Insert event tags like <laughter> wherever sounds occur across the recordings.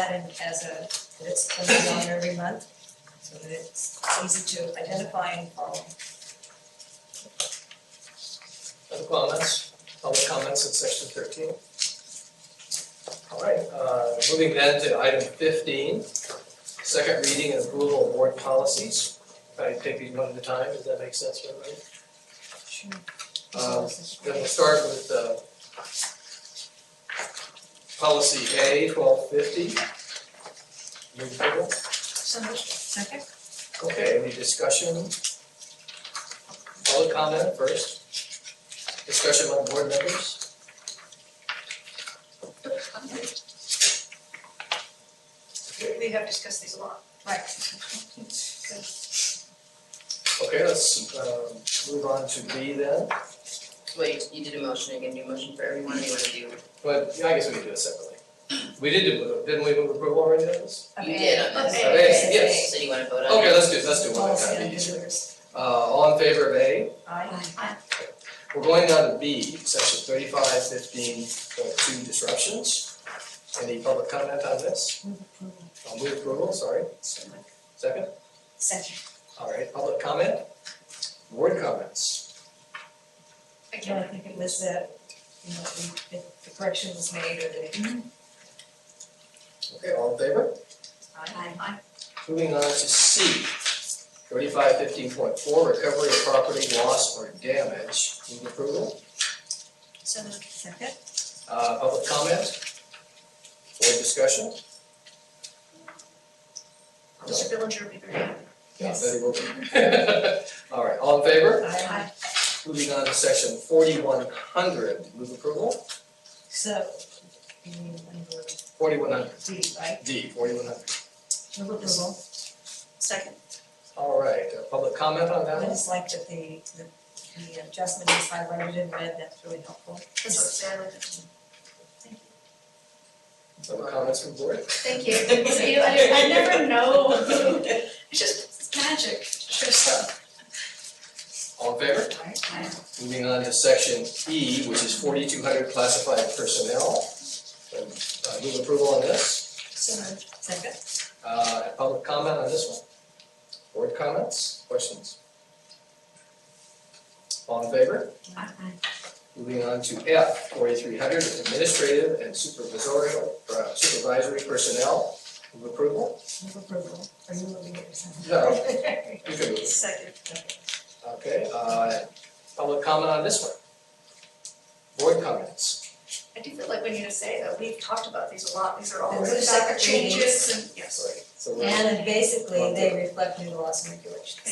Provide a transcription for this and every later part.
that in as a, that it's coming on every month, so that it's easy to identify and follow. Other comments, public comments in section thirteen? All right, uh, moving then to item fifteen, second reading and approval of board policies. I take these one at a time, does that make sense for everybody? Sure. Um, Then we'll start with uh, policy A, twelve fifty. Move approval. So moved. Second? Okay, any discussion? Public comment first. Discussion among board members? We, we have discussed these a lot. <laughs> Right. Okay, let's um, move on to B then. Wait, you did a motion, again, do a motion for everyone, or you wanna do? But yeah, I guess we can do it separately. We did do, didn't we move approval already on this? You did on this. Okay. Okay, Okay, yes. So you wanna vote on it? Okay, let's do, let's do one at a Policy time, on be easier. visitors. Uh, all in favor of A? Aye. We're going down to B, section thirty-five fifteen point two disruptions. Any public comment on this? I'll move approval, sorry. Second? Second. All right, public comment? Board comments? Again, I think it was that, you know, the, the- the correction was made or the. Okay, all in favor? Aye. Moving on to C, thirty-five fifteen point four, recovery of property loss or damage. Move approval. So moved. Second? Uh, public comment? Board discussion? No. Mr. Billinger would be very happy. Yeah, Yes. Betty will be. <laughs> All right, all in favor? Aye. Moving on to section forty-one hundred, move approval, So, you mean number forty-one hundred, D, right? D, forty-one hundred. Move approval. Second. All right, uh, public comment on that I one? just like that the, the, the adjustment is highlighted in red, that's really helpful. That's what Sarah would do. Public comments from board? Thank you. See, I, I never know. <laughs> It's just, it's magic. Sure stuff. All in favor? Moving on to section E, which is forty-two hundred classified personnel. Um, uh, Move approval on this, So moved. Second? uh, and public comment on this one? Board comments, questions? All in favor? Moving on to F, forty-three hundred, administrative and supervisory, uh, supervisory personnel. Move approval? Move approval. Are you moving it or something? No, you can move. Second. Okay, uh, public comment on this one? Board comments? I do feel like we need to say that we've talked about these a lot. These are all Those are really separate changes and, yes. Sorry. So we're- And basically, they reflect new laws and regulations.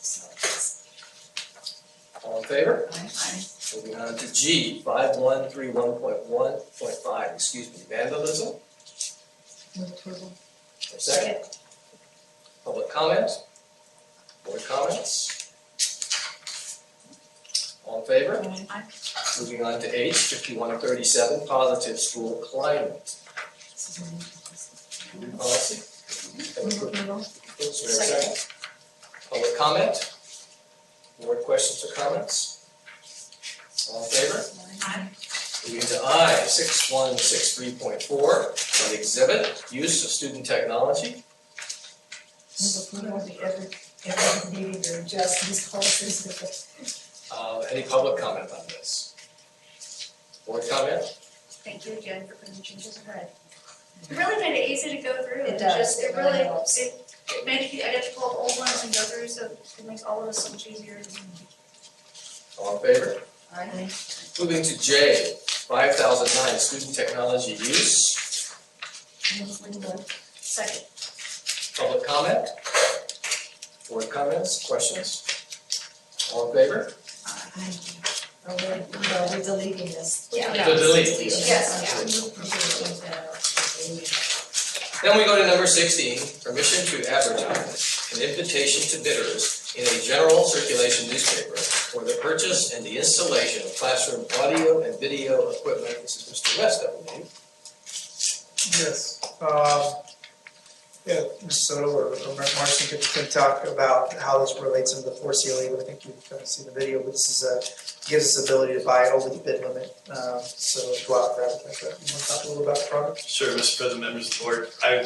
So it's- uh, all in favor? Aye. Moving on to G, five one three one point one point five, excuse me, vandalism. Move approval. For a Second, public comment? Board comments? All in favor? Aye. Moving on to H, fifty-one thirty-seven, positive school climate This is a new- policy. Have a Move quick- approval. oops, wait a second. Public comment? Board questions or comments? All in favor? Moving to I, six one six three point four, an exhibit, use of student technology. Move approval of the every, every meeting or adjust these policies with the. Uh, any public comment on this? Board comment? Thank you again for putting the changes in red. It really made it easy to go through. It and does. just- It It really really, helps. it it made it, I had to pull up old ones and go through, so it makes all of us so much easier. All in favor? Aye. Moving to J, five thousand nine, student technology use, Move approval. Second. Public comment? Board comments, questions? All in favor? Aye. Are we, are we deleting this? Yeah. To delete. Yes, Then we go to number sixteen, permission to advertise an invitation to bidders in a general circulation newspaper for the purchase and the installation of classroom audio and video equipment. This is Mr. West, I believe. Yes, um, Yeah, Mr. Soto or or Mar- Marcy could, could talk about how this relates into the four CLA, but I think you've kind of seen the video, but this is a, gives us the ability to buy over the bid limit, um, so go out there, I think, uh, you wanna talk a little about the product? Sure, Mr. President, members of the board. I